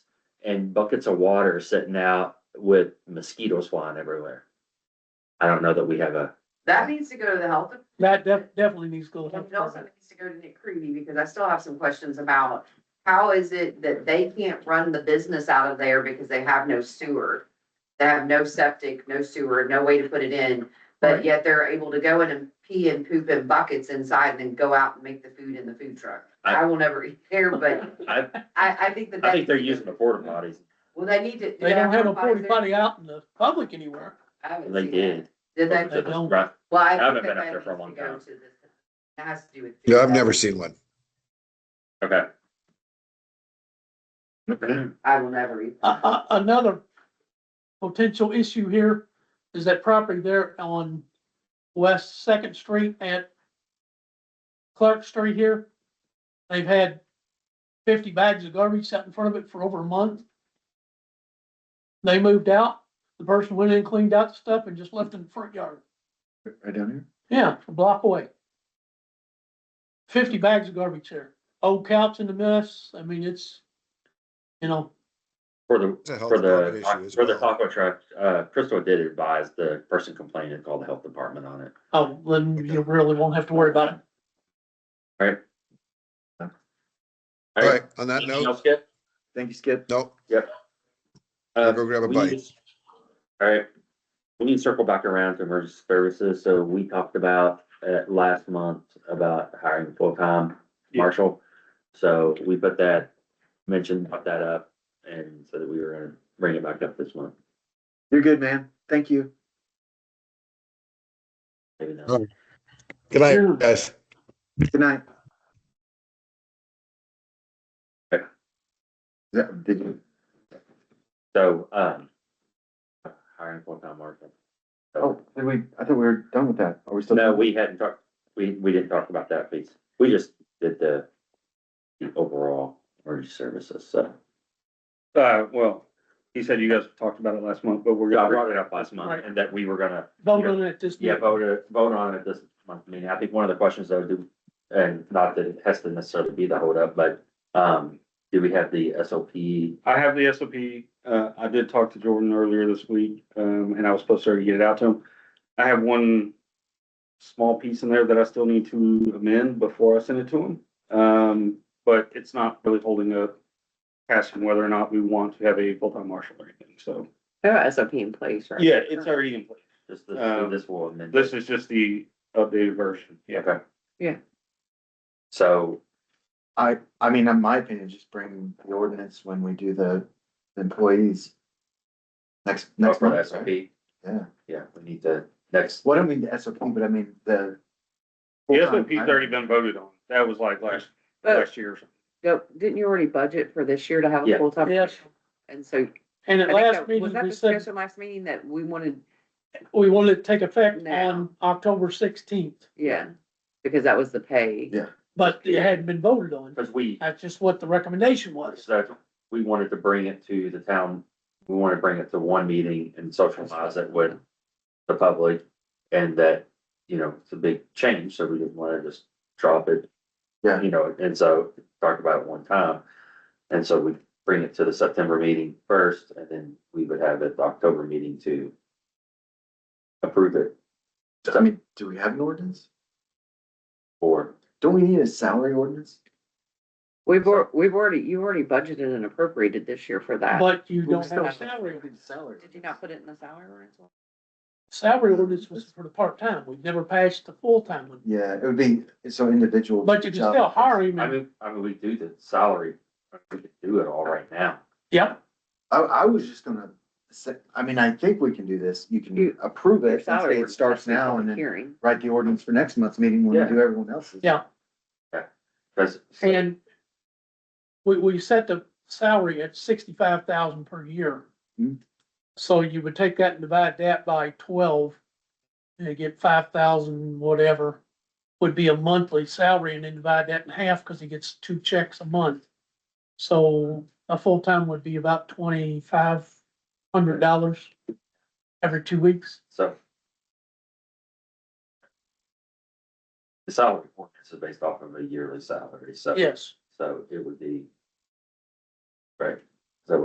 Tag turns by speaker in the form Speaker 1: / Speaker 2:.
Speaker 1: and buckets of water sitting out with mosquitoes flying everywhere. I don't know that we have a,
Speaker 2: That needs to go to the health.
Speaker 3: That def- definitely needs to go. to the health
Speaker 2: It also
Speaker 3: department.
Speaker 2: needs to go to Nick Creedy because I still have some questions about how is it that they can't run the business out of there because they have no sewer? They have no septic, no sewer, no way to put it in, but yet they're able to go in and pee and poop in buckets inside and then go out and make the food in the food truck. I will never eat there, but
Speaker 1: I,
Speaker 2: I, I think that.
Speaker 1: I
Speaker 2: that-
Speaker 1: think they're using the porta potties.
Speaker 2: Well, they need to.
Speaker 3: They don't have a forty
Speaker 2: there?
Speaker 3: potty out in the public anywhere.
Speaker 2: I haven't
Speaker 1: They
Speaker 2: seen
Speaker 1: did.
Speaker 2: that. Did they?
Speaker 3: They don't.
Speaker 1: Right.
Speaker 2: Well, I.
Speaker 1: haven't
Speaker 2: think
Speaker 1: been
Speaker 2: that
Speaker 1: up there for a
Speaker 2: needs
Speaker 1: long
Speaker 2: to go
Speaker 1: time.
Speaker 2: to the- It has to do with.
Speaker 4: Yeah, I've
Speaker 2: food.
Speaker 4: never seen one.
Speaker 1: Okay. Okay.
Speaker 2: I will never eat.
Speaker 3: A- a- Uh, another potential issue here is that property there on West Second Street at Clark Street here. They've had fifty bags of garbage sat in front of it for over a month. They moved out, the person went in, cleaned out the stuff and just left it in the front yard.
Speaker 1: Right down here?
Speaker 3: Yeah, a block away. Fifty bags of garbage here. Old couch in the mess. I mean, it's, you know,
Speaker 1: For the,
Speaker 4: It's a health
Speaker 1: for
Speaker 4: department issue
Speaker 1: the,
Speaker 4: as
Speaker 1: for the
Speaker 4: well.
Speaker 1: taco truck, uh, Crystal did advise the person complaining to call the health department on it.
Speaker 3: oh, then you really won't have to worry about it.
Speaker 4: All right, on that
Speaker 1: Anything
Speaker 4: note,
Speaker 1: else, Skip? Thank you, Skip.
Speaker 4: nope,
Speaker 1: Uh,
Speaker 4: go grab a
Speaker 1: we
Speaker 4: bite.
Speaker 1: need- All right, we need to circle back around to emergency services, so we talked about, uh, last month about hiring full-time
Speaker 5: Yeah.
Speaker 1: marshal. So we put that, mentioned, brought that up, and so that we were gonna bring it back up this month.
Speaker 5: You're good, man. Thank you.
Speaker 1: Maybe not.
Speaker 4: Oh. Good night, guys.
Speaker 5: Good night.
Speaker 1: Okay.
Speaker 5: Yeah, did you?
Speaker 1: So, um, hiring full-time marshal.
Speaker 5: Oh,
Speaker 1: So,
Speaker 5: did we, I thought we were done with that. Are
Speaker 6: Oh.
Speaker 5: we still?
Speaker 1: no, we hadn't talked, we, we didn't talk about that piece. We just did the, the overall emergency services, so.
Speaker 6: Uh, well, he said you guys talked about it last month, but we're
Speaker 1: Yeah, I
Speaker 6: gonna,
Speaker 1: brought it up last month,
Speaker 3: Right.
Speaker 1: and that we were gonna
Speaker 3: Vote on it this
Speaker 1: Yeah,
Speaker 3: meeting.
Speaker 1: vote, it- vote on it this month. I mean, I think one of the questions though, do, and not that it has to necessarily be the holdup, but, um, do we have the SOP?
Speaker 6: I have the SOP. Uh, I did talk to Jordan earlier this week, um, and I was supposed to already get it out to him. I have one small piece in there that I still need to amend before I send it to him. Um, but it's not really holding up asking whether or not we want to have a full-time marshal or anything, so.
Speaker 2: SOP in place, right?
Speaker 6: Yeah, it's already in place.
Speaker 1: Just this, so
Speaker 6: Um,
Speaker 1: this will amend.
Speaker 6: This is just the updated version. Yeah.
Speaker 1: Okay.
Speaker 2: Yeah.
Speaker 1: So,
Speaker 5: I, I mean, in my opinion, just bring the ordinance when we do the employees. Next,
Speaker 1: vote
Speaker 5: next
Speaker 3: Oh,
Speaker 1: for the
Speaker 5: month, right?
Speaker 1: SOP,
Speaker 5: Yeah.
Speaker 1: yeah, we need the next,
Speaker 5: Well, I don't mean the SOP, but I mean the.
Speaker 6: The SOP's already been voted on. That was like last, last year or something.
Speaker 2: didn't you already budget for this year to have
Speaker 1: Yeah.
Speaker 2: a full-time?
Speaker 3: Yes.
Speaker 2: And so.
Speaker 3: And
Speaker 2: I
Speaker 3: at
Speaker 2: think
Speaker 3: last
Speaker 2: that- Was
Speaker 3: meeting,
Speaker 2: that
Speaker 3: we said
Speaker 2: discussion last meeting that we wanted,
Speaker 3: we wanted to take effect
Speaker 2: Now.
Speaker 3: on October sixteenth,
Speaker 2: yeah, because that was the pay.
Speaker 5: Yeah.
Speaker 3: but it hadn't been voted on.
Speaker 1: because we,
Speaker 3: That's just what the recommendation was.
Speaker 1: so we wanted to bring it to the town, we wanted to bring it to one meeting and socialize it with the public. And that, you know, it's a big change, so we didn't wanna just drop it.
Speaker 5: Yeah.
Speaker 1: You know, and so talk about it one time. And so we bring it to the September meeting first, and then we would have it the October meeting to approve it
Speaker 5: I mean, do we have an ordinance?
Speaker 1: for,
Speaker 5: Don't we need a salary ordinance?
Speaker 7: We've, al- we've already, you already budgeted and appropriated this year for
Speaker 2: Ah,
Speaker 7: that.
Speaker 3: But you don't have a salary.
Speaker 5: We need a Salary.
Speaker 7: Did you not put it in the salary ordinance?
Speaker 3: Salary ordinance was for the part-time. We've never passed the full-time one.
Speaker 5: Yeah, it would be, so individual.
Speaker 3: But you can
Speaker 5: job.
Speaker 3: still hire him.
Speaker 1: I
Speaker 3: and-
Speaker 1: mean, I mean, we do the salary, we could do it all right now.
Speaker 3: Yeah,
Speaker 5: I, I was just gonna say, I mean, I think we can do this. You can
Speaker 7: You-
Speaker 5: approve
Speaker 7: Your
Speaker 5: it and
Speaker 7: salary.
Speaker 5: say it
Speaker 7: ordinance
Speaker 5: starts
Speaker 7: has to be
Speaker 5: now and
Speaker 7: public
Speaker 5: then
Speaker 7: Hearing.
Speaker 5: write the ordinance for next month's meeting when
Speaker 1: Yeah.
Speaker 5: we do everyone else's.
Speaker 3: yeah.
Speaker 1: Cause
Speaker 3: And we, we set the salary at sixty-five thousand per year.
Speaker 5: Mhm.
Speaker 3: So you would take that and divide that by twelve, and you get five thousand, whatever, would be a monthly salary, and then divide that in half, cause he gets two checks a month. So a full-time would be about twenty-five hundred dollars every two weeks.
Speaker 1: So. The salary ordinance is based off of a yearly salary, so,
Speaker 3: Yes,
Speaker 1: so it would be. Right,